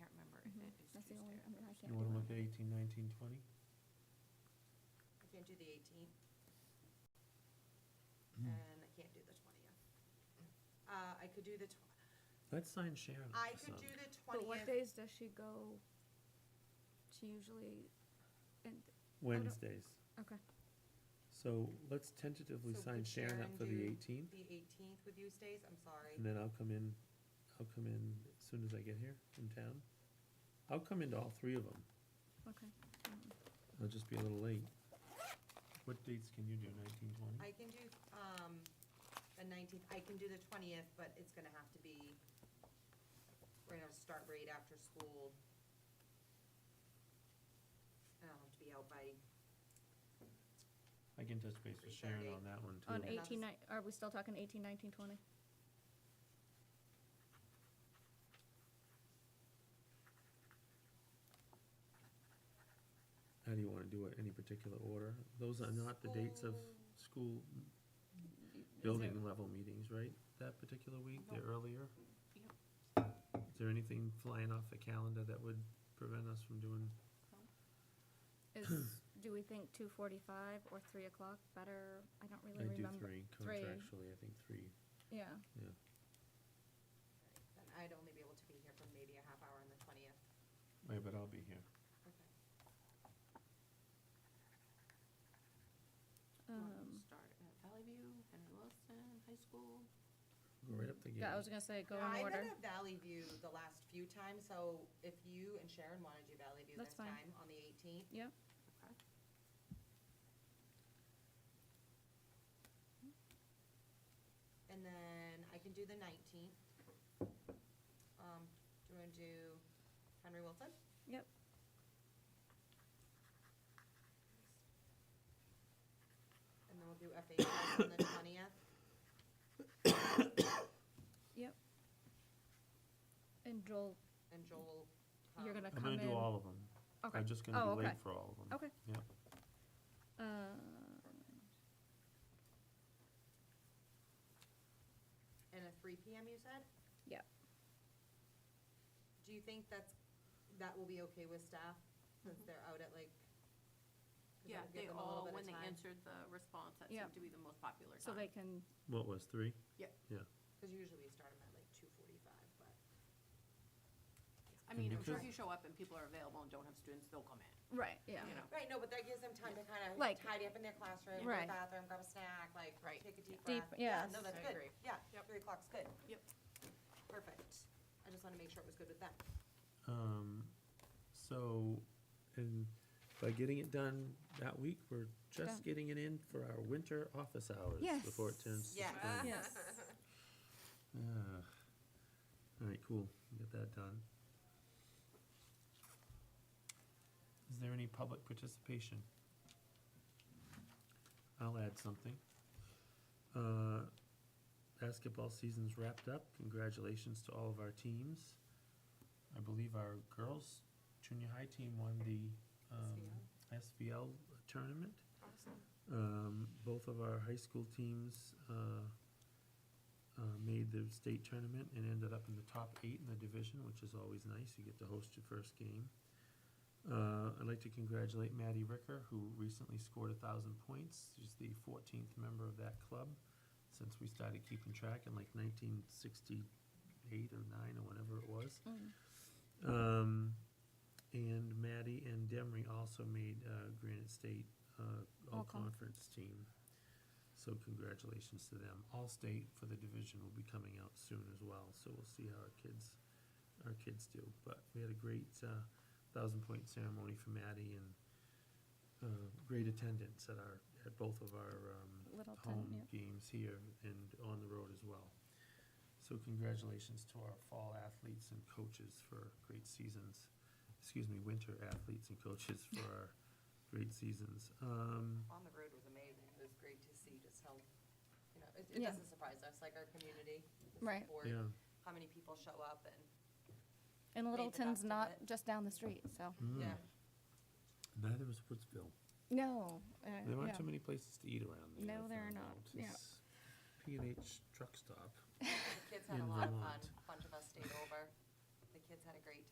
Mm-hmm. That's the only, I mean, I can't. You wanna look at eighteen, nineteen, twenty? I can't do the eighteenth. And I can't do the twentieth. Uh, I could do the tw- Let's sign Sharon. I could do the But what twentieth, days does she go? She usually, and, Wednesdays. okay, So let's tentatively So sign could Sharon up Sharon for the do- eighteenth, the eighteenth with you stays, I'm sorry. and then I'll come in, I'll come in as soon as I get here from town. I'll come into all three of them. okay. Um, I'll just be a little late. What dates can you do, nineteen, twenty? I can do, um, the nineteenth, I can do the twentieth, but it's gonna have to be, we're gonna have to start right after school. And I'll have to be out by, I can touch base with Sharon 3:30. on that one too. On Yeah. eighteen, nine, are we still talking eighteen, nineteen, twenty? How do you wanna do it, any particular order? Those are not the dates of school building level meetings, right? That particular week, the Nope. earlier? Is there anything flying off the calendar that would prevent us from doing? Is, do we think two forty-five or three o'clock better? I don't I really do remember. three Three. contractually, I think three, Yeah, yeah. then I'd only be able to be here for maybe a half hour on the twentieth. Wait, but I'll be here. Okay. um, Start at Valley View, Henry Wilson High School. Go right up the gate. yeah, I was gonna say, go Yeah, in order. I've been at Valley View the last few times, so if you and Sharon want to do Valley View That's this fine. time on the 18th, Yep, Okay. and then I can do the 19th. Um, do you want to do Henry Wilson? yep. And then we'll do FHS on the 20th. Yep. And Joel, And Joel. you're um, gonna I'm come in? gonna do all of them. Okay. I'm just Oh, gonna be okay. late for all of them. Okay. Yeah. Um, And a 3 PM, you said? Yep. Do you think that's, that will be okay with staff since they're out at like? 'cause Yeah, that'll give they them a little all, bit of when they time. answered the response, that Yeah. seemed to be the most popular so they time. can, What was, three? Because usually we start them at like two forty-five, but. I mean, I'm sure because- if you show up and people are available and don't have students, they'll come in, right, yeah. you know? Right, no, but that gives them time to kind of Like- tidy up in their classroom, go to Right. the bathroom, grab a snack, like, Right. take a deep breath. Deep- yes. No, that's I good, agree. yeah, Yep. three o'clock's good. Yep. Perfect. I just want to make sure it was good with them. Um, so, and by getting it done that week, we're Done. just getting it in for our winter office hours Yes. before it turns to Yeah. spring. Yes. Ah. All right, cool. Get that done. Is there any public participation? I'll add something. Uh, basketball season's wrapped up. Congratulations to all of our teams. I believe our girls junior high team won the um, SVL tournament. Awesome. Um, both of our high school teams, uh, uh, made the state tournament and ended up in the top eight in the division, which is always nice. You get to host your first game. Uh, I'd like to congratulate Maddie Ricker, who recently scored a thousand points. She's the fourteenth member of that club since we started keeping track in like nineteen sixty-eight or nine or whenever it was. Mm. Um, and Maddie and Demery also made, uh, Granite State, uh, All-con. all-conference team. So congratulations to them. All-state for the division will be coming out soon as well, so we'll see how our kids, our kids do. But we had a great, uh, thousand-point ceremony for Maddie and, uh, great attendance at our, at both of our, um, Littleton, home yeah. games here and on the road as well. So congratulations to our fall athletes and coaches for great seasons, excuse me, winter athletes and coaches for our great seasons. Um, On the road was amazing. It was great to see just how, you know, it, it Yeah. doesn't surprise us, like our community. Right. yeah, How many people show up and, Made And the best Littleton's of not it. just down the street, so, Mm. yeah. neither was Woodsville. no, uh, There aren't yeah. too many places to eat around there. No, I there are found not. out. Yeah. It's P and H truck stop. The kids had In a lot of fun. Vermont. A bunch of us stayed over. The kids had a great